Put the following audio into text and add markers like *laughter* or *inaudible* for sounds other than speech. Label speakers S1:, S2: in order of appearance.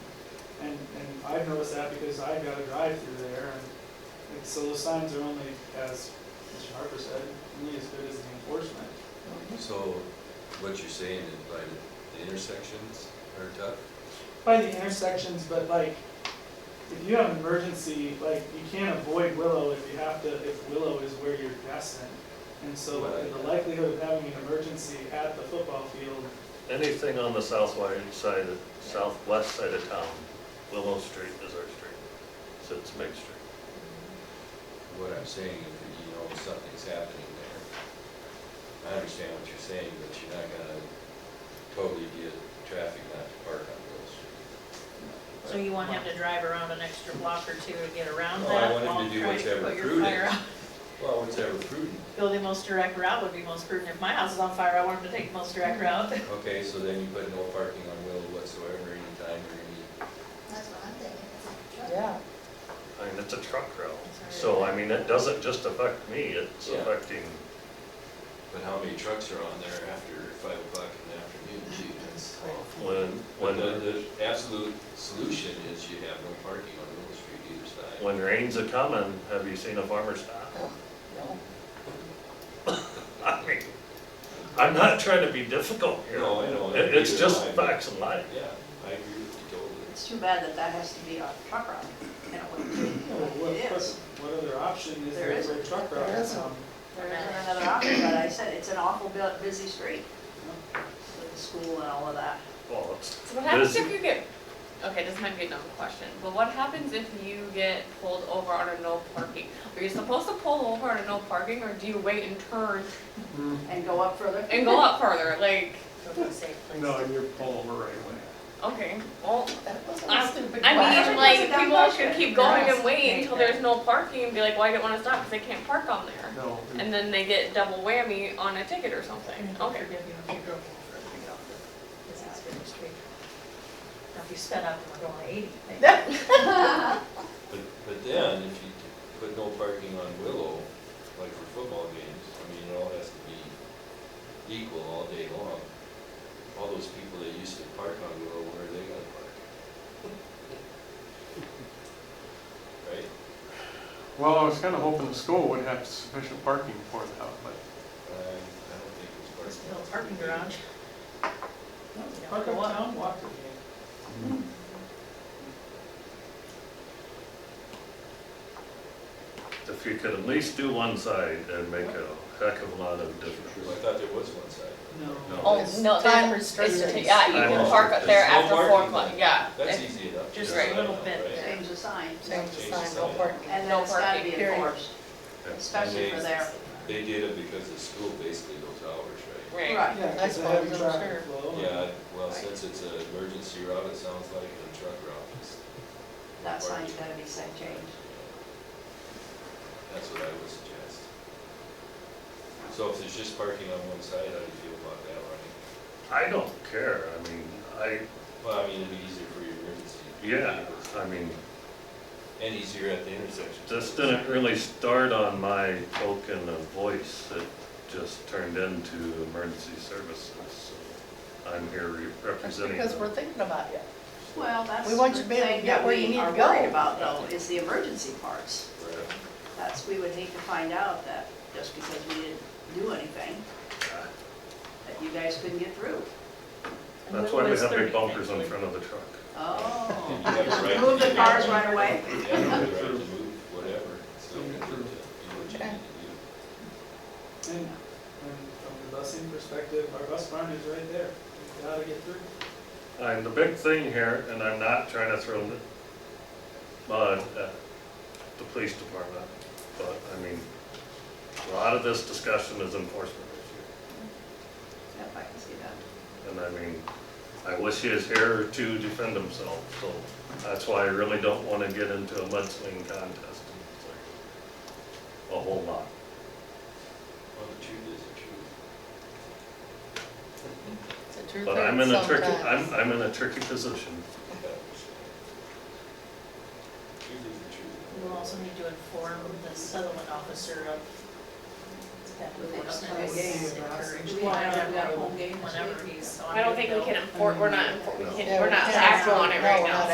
S1: I've noticed that because I've got to drive through there, and, and so those signs are only, as Mr. Harper said, only as good as the enforcement.
S2: So what you're saying is by the intersections are tough?
S1: By the intersections, but like, if you have an emergency, like, you can't avoid Willow if you have to, if Willow is where you're destined. And so
S2: Right.
S1: the likelihood of having an emergency at the football field,
S3: Anything on the southwest side, of- southwest side of town, Willow Street is our street, so it's Main Street.
S2: What I'm saying is that you know something's happening there. I understand what you're saying, but you're not gonna totally get traffic not to park on Willow Street.
S4: So you want him to drive around an extra block or two to get around
S2: No, I
S4: that
S2: want him
S4: while
S2: to do
S4: trying to
S2: whatever
S4: put your
S2: prudent.
S4: fire out?
S2: Well, it's ever prudent.
S4: Go the most direct route would be most prudent. If my house is on fire, I want him to take the most direct route.
S2: Okay, so then you put no parking on Willow whatsoever anytime or any,
S5: That's what I'm thinking.
S6: Yeah,
S3: I mean, it's a truck route, so I mean, it doesn't just affect me, it's
S2: Yeah.
S3: affecting,
S2: but how many trucks are on there after five o'clock in the afternoon? Gee, that's awful.
S3: when,
S2: But the,
S3: when,
S2: the absolute solution is you have no parking on Willow Street either side.
S3: when rains are coming, have you seen a farmer stop?
S6: no,
S3: I mean, I'm not trying to be difficult here.
S2: No, I know.
S3: It- It's
S2: Neither
S3: just
S2: am I.
S3: facts of life.
S2: Yeah, I agree with you totally.
S5: It's too bad that that has to be on truck route, and it wouldn't
S1: you
S5: be.
S1: know, what,
S5: It is.
S1: what other option is
S5: There
S1: there
S5: isn't.
S1: for a truck
S6: There
S1: route?
S6: isn't.
S1: Um,
S5: There isn't another option, but I said, it's an awful bu- busy street with the school and all of that.
S3: Well, it's,
S7: So what happens
S3: This-
S7: if you get, okay, this might be a dumb question, but what happens if you get pulled over on a no parking? Are you supposed to pull over on a no parking, or do you wait and turn
S8: Mm-hmm.
S5: And go up further.
S7: and go up further, like,
S8: No, you're pull over right away.
S7: okay, well,
S6: that wasn't a
S7: I,
S6: stupid
S7: I
S6: question.
S7: mean,
S5: That's a
S7: like,
S5: dumb
S7: people
S5: question.
S7: should keep going and wait
S4: Right.
S7: until there's no parking and be like, well, I didn't wanna stop, because they can't park on there.
S8: No,
S7: And then they get double whammy on a ticket or something,
S6: Mm-hmm.
S7: okay.
S4: Because
S5: it's
S4: been Now, if you sped up and we're going eighty,
S2: But, but then, if you put no parking on Willow, like for football games, I mean, it all has to be equal all day long. All those people that used to park on Willow, where are they gonna park? Right?
S8: well, I was kind of hoping the school would have sufficient parking for that, but
S2: I, Um, I don't think it's
S4: there's a
S2: parking.
S4: little parking garage.
S1: Park uptown, walk to the game.
S3: if you could at least do one side and make a heck of a lot of difference.
S2: I thought there was one side.
S3: No.
S7: Oh, no,
S6: time
S7: there's-
S6: restrictions.
S7: it's- Yeah, you
S2: Oh,
S7: can park up there
S2: there's no
S7: after four
S2: parking.
S7: o'clock, yeah.
S2: That's
S7: If-
S2: easy enough.
S4: Just
S7: a Right.
S4: little bit
S2: Right?
S5: Change the sign,
S6: Change the sign, no
S2: Change the sign.
S6: parking.
S5: and then
S7: No
S5: it's gotta
S7: parking,
S5: be
S7: period.
S5: enforced, especially for there.
S2: They did it because the school basically goes hours, right?
S7: Right.
S5: Right.
S1: Yeah,
S6: That's
S1: because the
S6: what
S1: heavy
S6: I'm
S1: traffic
S6: sure.
S1: flow.
S2: Yeah, well, since it's an emergency route, it sounds like a truck route. It's-
S5: That sign's gotta be set changed.
S2: That's what I would suggest. So if there's just parking on one side, how do you feel about that, Ronnie?
S3: I don't care, I mean, I,
S2: Well, I mean, it'd be easier for your emergency.
S3: yeah, I mean,
S2: And easier at the intersection.
S3: this didn't really start on my token of voice, it just turned into emergency services, so I'm here re-
S6: That's
S3: representing
S6: because we're
S3: them.
S6: thinking about you.
S5: Well, that's
S6: We
S5: the
S6: want you to be able to
S5: thing
S6: get
S5: that
S6: where you
S5: we
S6: need
S5: are
S6: to go.
S5: worried about though, is the emergency parts.
S2: Right.
S5: That's, we would need to find out that just because we didn't do anything, that you guys couldn't get through.
S3: That's why we have big bumpers in front of the truck.
S2: You *laughs*
S5: Oh.
S2: have a right to
S5: Move the
S2: do that.
S5: cars right away.
S2: Yeah, you have a right to move, whatever, so you can do what you need to do.
S1: And, and from the busing perspective, our bus barn is right there. We've got to get through.
S3: And the big thing here, and I'm not trying to throw mud at the police department, but I mean, a lot of this discussion is enforcement issue.
S5: Yep, I can see that.
S3: And I mean, I wish he was here to defend himself, so that's why I really don't want to get into a mudslinging contest. A whole lot.
S2: Well, the truth is the truth.
S6: It's a true
S3: But I'm in a tricky,
S6: sometimes.
S3: I'm, I'm in a tricky position.
S2: Truth is the truth.
S4: We'll also need to inform the settlement officer of that enforcement is encouraged.
S5: We have to have a home game this
S4: Whenever
S5: week.
S4: he's on.
S7: I don't think we
S4: the
S7: can
S4: bill.
S7: enforce, we're not, enfor- we
S3: No.
S7: can, we're not acting on it
S6: No,
S7: right
S6: we're
S7: now.
S6: not